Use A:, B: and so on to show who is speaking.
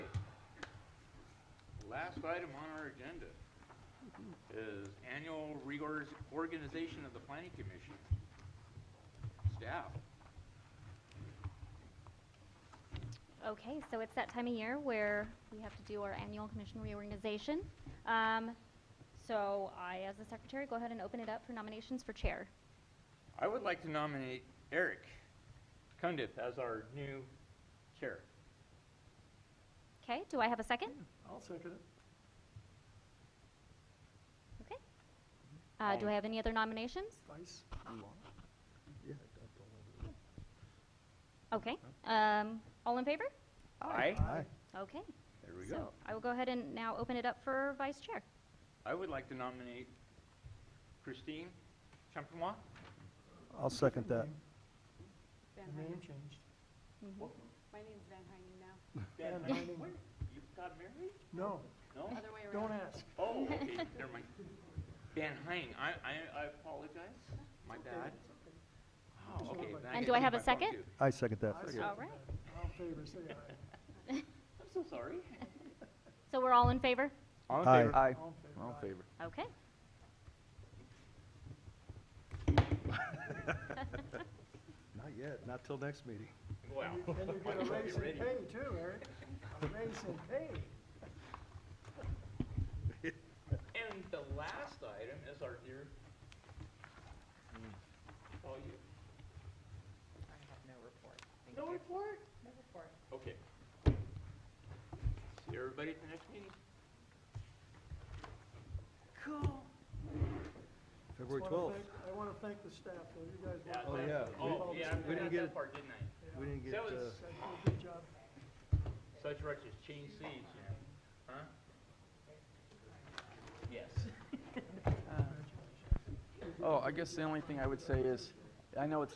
A: last item on our agenda is annual reorganization of the planning commission. Staff,
B: Okay, so it's that time of year where we have to do our annual commission reorganization. Um, So I, as the secretary, go ahead and open it up for nominations for chair.
A: I would like to nominate Eric Cundith as our new chair.
B: Okay, do I have a second?
C: I'll second it.
B: Okay. Uh, Do I have any other nominations?
C: Vice?
B: Okay. Um, All in favor?
A: Aye.
C: Aye.
B: Okay.
A: There we
B: So
A: go.
B: I will go ahead and now open it up for vice chair.
A: I would like to nominate Christine Champenois.
D: I'll second that.
E: Van
C: The name
E: Heinen.
C: changed.
E: My name's Van Heinen now.
A: Ben,
C: Yeah.
A: wait, You got married?
C: No,
A: No?
E: Other way
C: don't
E: around.
C: ask.
A: Oh, okay, never mind. Van Hine, I, I, I apologize, my bad. Oh, okay. then
B: And
A: get
B: do I
A: to
B: have
A: my
B: a
A: phone,
B: second?
A: too.
D: I second that.
C: I
B: All
C: second
B: right.
C: that. All in favor, say aye.
A: I'm so sorry.
B: So we're all in favor?
A: All
C: All
D: Aye. Aye.
C: in favor,
D: All in
C: aye.
D: favor.
B: Okay.
D: Not yet, not till next meeting.
A: Wow.
C: And you get a raise in pay too, Eric. A raise in pay.
A: And the last item is our dear. Oh, you,
F: Hmm. I have no report. Thank
A: no
F: you.
A: report?
F: No report.
A: Okay. See everybody at the next meeting?
F: Oh,
A: Cool.
D: February
C: Just wanna
D: 12th.
C: thank- I want to thank the staff, though. You guys
A: Yeah,
C: worked
D: Oh,
A: that-
D: yeah.
A: Oh, yeah, I
D: We
A: forgot
D: didn't get
A: that
D: it.
A: part, didn't I?
D: We didn't get,
A: That
D: uh,
A: was-
C: guys did a good job.
A: Such rush as change seats, you know, huh? Yes.
G: Oh, I guess the only thing I would say is, I know it's